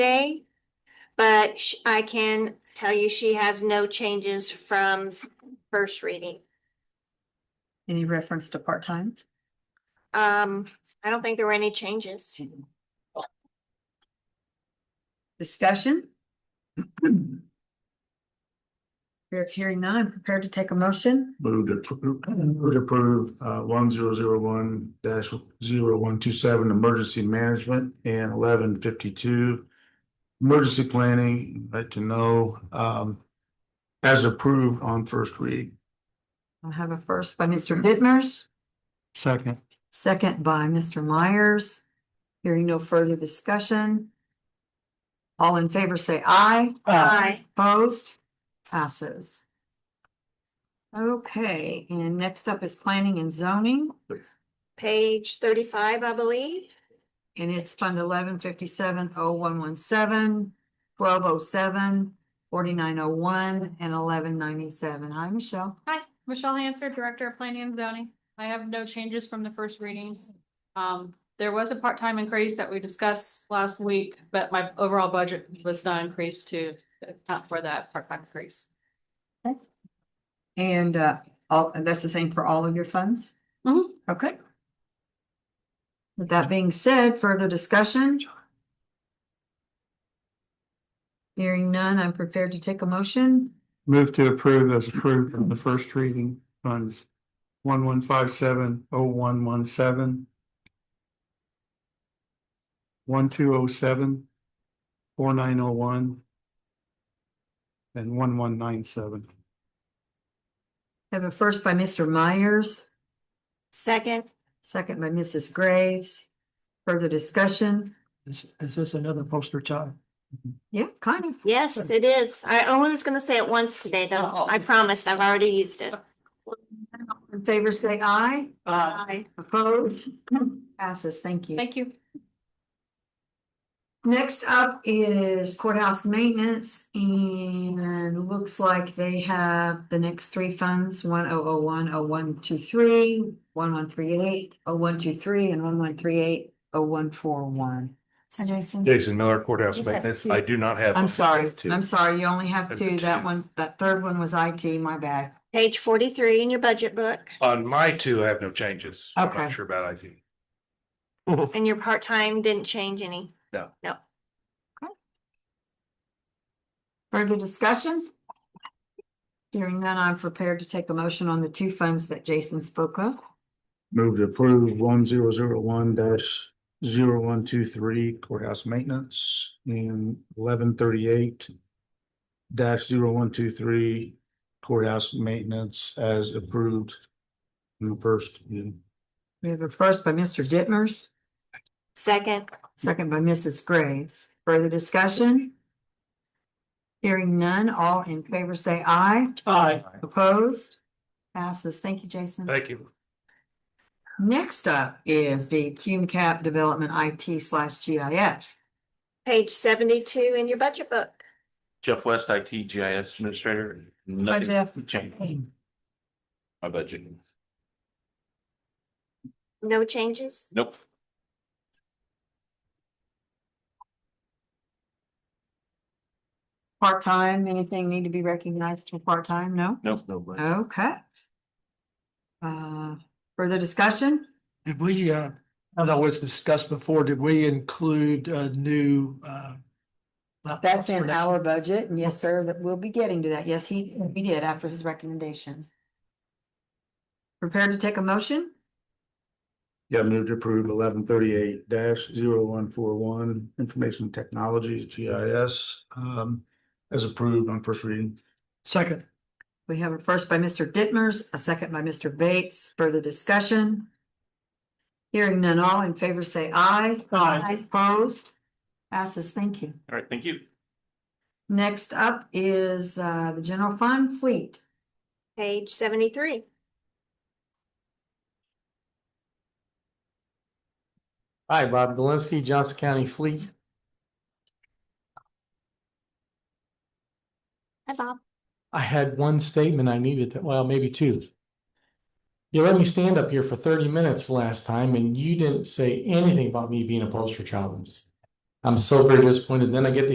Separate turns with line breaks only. day. But sh- I can tell you she has no changes from first reading.
Any reference to part-time?
Um, I don't think there were any changes.
Discussion? Here, hearing none, prepared to take a motion?
Move to approve, move to approve, uh, one zero zero one dash zero one two seven, emergency management and eleven fifty-two. Emergency planning, right to know, um, as approved on first read.
I'll have a first by Mr. Dittmers,
Second.
second by Mr. Myers. Hearing no further discussion. All in favor, say aye.
Aye.
Opposed? Passes. Okay, and next up is planning and zoning,
Page thirty-five, I believe.
and it's fund eleven fifty-seven oh one one seven, twelve oh seven, forty-nine oh one, and eleven ninety-seven. Hi, Michelle.
Hi, Michelle Hanser, Director of Planning and Zoning. I have no changes from the first readings. Um, there was a part-time increase that we discussed last week, but my overall budget was not increased to account for that part-time increase.
And uh, all, and that's the same for all of your funds?
Mhm.
Okay. Mm-hmm. With that being said, further discussion? Hearing none, I'm prepared to take a motion.
Move to approve as approved from the first reading funds one one five seven oh one one seven. One two oh seven, four nine oh one. And one one nine seven.
I Have a first by Mr. Myers,
Second,
second by Mrs. Graves. Further discussion?
Is, is this another poster child?
Yeah, kind of.
yes, it is. I only was gonna say it once today, though. I promised. I've already used it.
In favor, say aye.
Aye.
Opposed? Passes, thank you.
Thank you.
Next up is courthouse maintenance and looks like they have the next three funds, one oh oh one, oh one two three, one one three eight, oh one two three, and one one three eight, oh one four one. Hi, Jason.
Jason Miller Courthouse
Yes, that's
Maintenance.
two.
I do not have.
I'm sorry,
That's two.
I'm sorry, you only have
There's
two, that
two.
one, that third one was IT, my bad.
Page forty-three in your budget book
On my two, I have no changes. I'm
Okay.
not sure about IT.
and your part-time didn't change any.
Further discussion? Hearing none, I'm prepared to take a motion on the two funds that Jason spoke of.
Move to approve one zero zero one dash zero one two three courthouse maintenance and eleven thirty-eight. Dash zero one two three courthouse maintenance as approved. In the first, reading.
We have a first by Mr. Dittmers.
Second,
Second by Mrs. Graves. Further discussion? Hearing none, all in favor say aye.
Aye.
Opposed? Passes. Thank you, Jason.
Thank you.
Next up is the Cume Cap Development IT slash GIS.
page seventy-two in your budget book.
Jeff West, IT GIS Administrator.
Hi, Jeff.
Nothing changed. My budget.
No changes?
Nope.
Part-time, anything need to be recognized for part-time? No?
Nope. No.
Okay. Uh, further discussion?
Did we, uh, I know was discussed before, did we include a new, uh? laptops
That's
for
in
that?
our budget, and yes, sir, that we'll be getting to that. Yes, he, he did after his recommendation. Prepared to take a motion?
yeah, move to approve eleven thirty-eight dash zero one four one information technologies GIS. Um, as approved on first reading.
Second,
We have a first by Mr. Dittmers, a second by Mr. Bates. Further discussion? Hearing none, all in favor say aye.
Aye.
Opposed? Passes, thank you.
All right, thank you.
Next up is uh, the general fund fleet.
Page seventy-three.
Hi, Bob Dolinsky, Johnson County Fleet.
Hi, Bob.
I had one statement I needed to, well, maybe two. You let me stand up here for thirty minutes last time and you didn't say anything about me being a poster child.
I'm so very disappointed. Then I get the